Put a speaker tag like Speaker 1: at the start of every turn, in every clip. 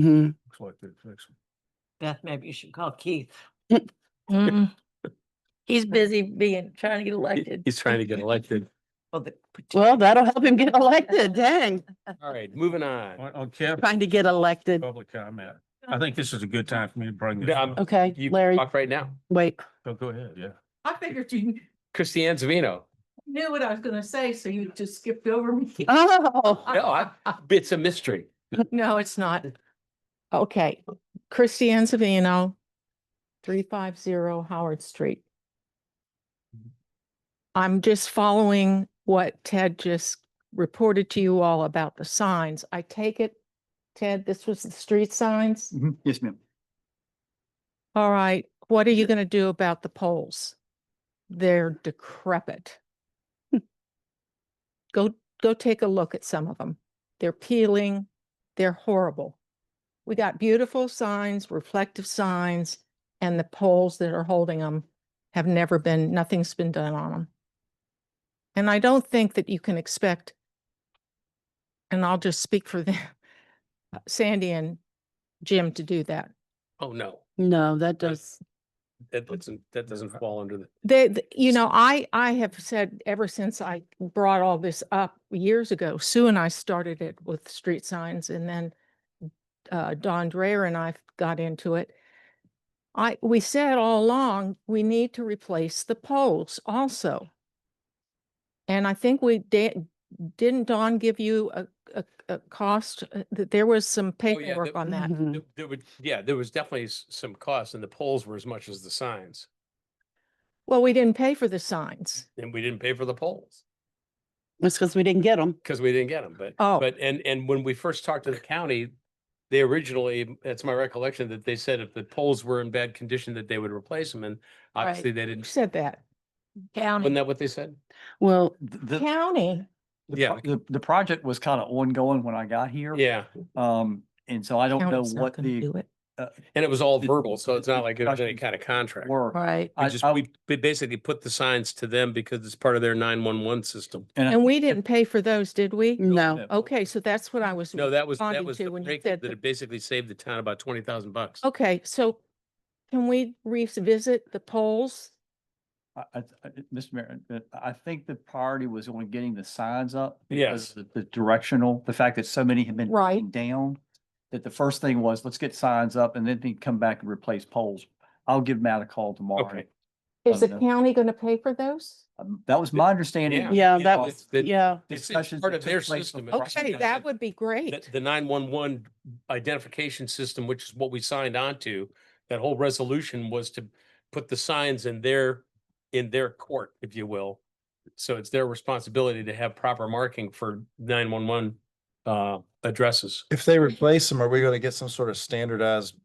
Speaker 1: hmm
Speaker 2: Looks like they fixed it.
Speaker 3: Beth, maybe you should call Keith.
Speaker 4: Mm. He's busy being, trying to get elected.
Speaker 5: He's trying to get elected.
Speaker 3: for the partic-
Speaker 1: Well, that'll help him get elected. Dang,
Speaker 5: All right, moving on.
Speaker 2: On, on cap,
Speaker 1: trying to get elected.
Speaker 2: public comment. I think this is a good time for me to bring this
Speaker 5: Yeah, I'm-
Speaker 2: up. Oh,
Speaker 1: Okay,
Speaker 5: You
Speaker 1: Larry,
Speaker 5: talk right now.
Speaker 1: wait.
Speaker 2: Go, go ahead, yeah.
Speaker 3: I figured you
Speaker 5: Christiane Zavino.
Speaker 3: knew what I was gonna say, so you just skipped over me.
Speaker 1: Oh,
Speaker 5: No, I, it's a mystery.
Speaker 4: No, it's not. Okay, Christiane Savino, three five zero Howard Street. I'm just following what Ted just reported to you all about the signs. I take it, Ted, this was the street signs?
Speaker 6: Mm-hmm. Yes, ma'am.
Speaker 4: All right, what are you gonna do about the poles? They're decrepit. Hmm. Go, go take a look at some of them. They're peeling, they're horrible. We got beautiful signs, reflective signs, and the poles that are holding them have never been, nothing's been done on them. And I don't think that you can expect, and I'll just speak for them, Sandy and Jim to do that.
Speaker 5: Oh, no.
Speaker 1: no, that does,
Speaker 5: That doesn't, that doesn't
Speaker 1: Mm-hmm.
Speaker 5: fall under the,
Speaker 4: They, th- you know, I, I have said ever since I brought all this up years ago, Sue and I started it with street signs and then uh, Don Dreyer and I got into it. I, we said all along, we need to replace the poles also. And I think we did, didn't Don give you a, a, a cost? uh, That there was some paperwork
Speaker 5: the-
Speaker 4: on that.
Speaker 1: Mhm.
Speaker 5: there- there would, yeah, there was definitely s- some cost and the poles were as much as the signs.
Speaker 4: Well, we didn't pay for the signs.
Speaker 5: And we didn't pay for the poles
Speaker 1: it's because we didn't get them.
Speaker 5: because we didn't get them. But,
Speaker 4: Oh.
Speaker 5: but, and, and when we first talked to the county, they originally, that's my recollection, that they said if the poles were in bad condition, that they would replace them. And obviously they
Speaker 4: Who
Speaker 5: didn't.
Speaker 4: said that?
Speaker 5: Wasn't
Speaker 4: County.
Speaker 5: that what they said?
Speaker 1: Well,
Speaker 6: The, the-
Speaker 4: County.
Speaker 5: Yeah.
Speaker 6: the, pro- the, the project was kind of ongoing when I got here.
Speaker 5: Yeah.
Speaker 6: Um, and so I don't know
Speaker 4: County's not
Speaker 6: what
Speaker 4: gonna
Speaker 6: the
Speaker 4: do it.
Speaker 5: And it was all
Speaker 6: The-
Speaker 5: verbal, so it's not like it was any
Speaker 6: discussions
Speaker 5: kind of contract.
Speaker 6: were.
Speaker 1: right.
Speaker 5: We
Speaker 6: I-
Speaker 5: just,
Speaker 6: I-
Speaker 5: we we basically put the signs to them because it's part of their nine-one-one system.
Speaker 6: I
Speaker 4: And we
Speaker 6: think
Speaker 4: didn't pay for those, did we?
Speaker 1: No,
Speaker 4: Okay, so that's what I was.
Speaker 5: No, that was, that
Speaker 4: Responding
Speaker 5: was
Speaker 4: to
Speaker 5: the
Speaker 4: when you
Speaker 5: break
Speaker 4: said
Speaker 5: that
Speaker 4: the-
Speaker 5: it basically saved the town about twenty thousand bucks.
Speaker 4: Okay, so can we revisit the polls?
Speaker 6: I, I, I- Mr. Mayor, uh, I think the priority was on getting the signs up.
Speaker 5: Yes.
Speaker 6: because of The directional, the fact that so many have been.
Speaker 4: Right.
Speaker 6: taken Down, that the first thing was, let's get signs up and then they come back and replace poles. I'll give Matt a call tomorrow.
Speaker 5: Okay.
Speaker 4: Is the
Speaker 6: Okay.
Speaker 4: county going to pay for those?
Speaker 6: Um, That was my understanding.
Speaker 1: yeah,
Speaker 5: It
Speaker 1: that
Speaker 5: was-
Speaker 1: was,
Speaker 5: that-
Speaker 1: yeah,
Speaker 5: It's it's
Speaker 6: discussions
Speaker 5: part
Speaker 6: that
Speaker 5: of
Speaker 6: took
Speaker 5: their
Speaker 6: place
Speaker 5: system.
Speaker 6: with Russell
Speaker 5: It
Speaker 4: Okay,
Speaker 5: wasn't
Speaker 6: County.
Speaker 4: that would be
Speaker 5: The,
Speaker 4: great.
Speaker 5: the nine-one-one identification system, which is what we signed on to, that whole resolution was to put the signs in their, in their court, if you will. So it's their responsibility to have proper marking for nine-one-one, uh, addresses.
Speaker 7: If they replace them, are we gonna get some sort of standardized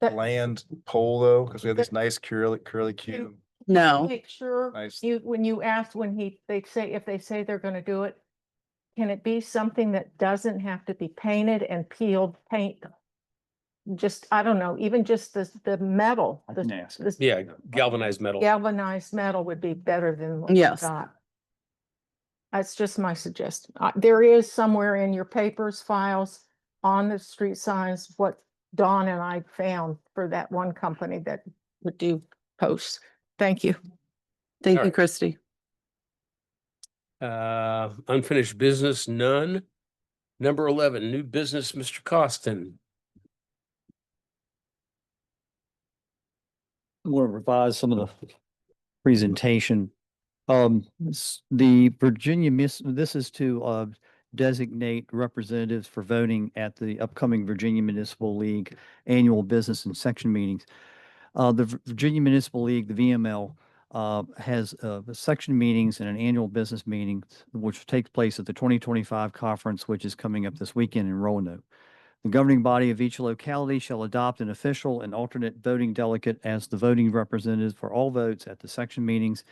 Speaker 4: But-
Speaker 7: land pole though? Cause we have
Speaker 4: But-
Speaker 7: these nice curly, curly cue.
Speaker 1: no.
Speaker 4: Make sure
Speaker 7: Nice.
Speaker 4: you, when you ask, when he, they say, if they say they're going to do it, can it be something that doesn't have to be painted and peeled paint? Just, I don't know, even just the, the metal,
Speaker 6: I
Speaker 4: the
Speaker 6: can ask.
Speaker 4: this-
Speaker 5: Yeah, galvanized metal.
Speaker 4: galvanized metal would be better than what we
Speaker 1: Yes.
Speaker 4: got. That's just my suggestion. Uh, There is somewhere in your papers, files, on the street signs, what Don and I found for that one company that would do posts. Thank you.
Speaker 1: Thank you,
Speaker 5: Alright.
Speaker 1: Christie.
Speaker 5: Uh, unfinished business, none. Number eleven, new business, Mr. Costin.
Speaker 6: want to revise some of the presentation. Um, s- the Virginia Miss, this is to, uh, designate representatives for voting at the upcoming Virginia Municipal League Annual Business and Section Meetings. Uh, the Vir- Virginia Municipal League, the VML, uh, has, uh, the section meetings and an annual business meeting, which takes place at the twenty twenty-five conference, which is coming up this weekend in Roanoke. The governing body of each locality shall adopt an official and alternate voting delegate as the voting representative for all votes at the section meetings.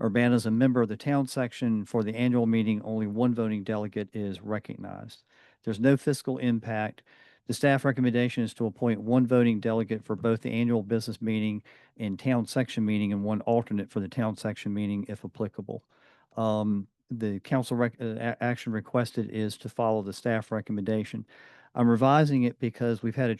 Speaker 6: Urbana is a member of the town section. For the annual meeting, only one voting delegate is recognized. There's no fiscal impact. The staff recommendation is to appoint one voting delegate for both the annual business meeting and town section meeting and one alternate for the town section meeting if applicable. Um, The council rec- uh, a- action requested is to follow the staff recommendation. I'm revising it because we've had a